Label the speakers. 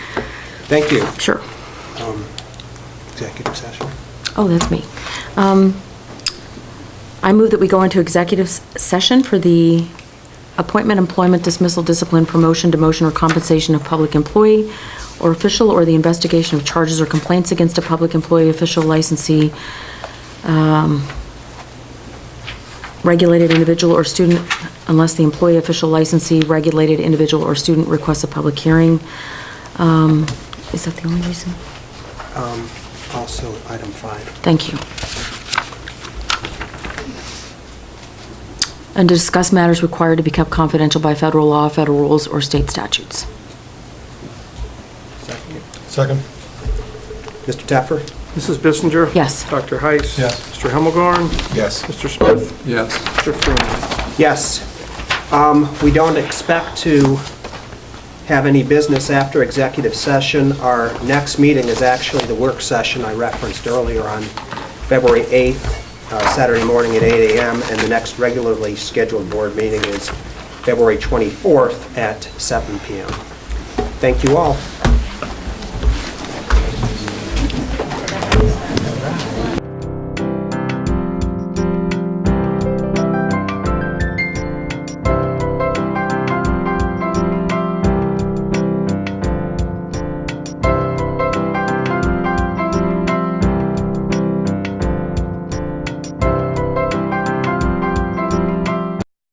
Speaker 1: Thank you.
Speaker 2: Sure.
Speaker 1: Um, Executive session.
Speaker 2: Oh, that's me. Um, I move that we go into executive s- session for the appointment, employment, dismissal, discipline, promotion, demotion, or compensation of public employee or official, or the investigation of charges or complaints against a public employee, official, licensee, um, regulated individual or student, unless the employee, official, licensee, regulated individual or student requests a public hearing. Um, Is that the only reason?
Speaker 1: Um, Also, item five.
Speaker 2: Thank you. And to discuss matters required to be kept confidential by federal law, federal rules, or state statutes.
Speaker 3: Second.
Speaker 1: Mr. Taffer?
Speaker 4: Mrs. Bissinger?
Speaker 2: Yes.
Speaker 4: Dr. Heiss?
Speaker 3: Yes.
Speaker 4: Mr. Hemmelgarn?
Speaker 3: Yes.
Speaker 4: Mr. Smith?
Speaker 3: Yes.
Speaker 4: Mr. Freeman?
Speaker 1: Yes. Um, We don't expect to have any business after executive session. Our next meeting is actually the work session I referenced earlier on February 8th, uh, Saturday morning at 8 a.m., and the next regularly scheduled board meeting is February 24th at 7 p.m. Thank you all.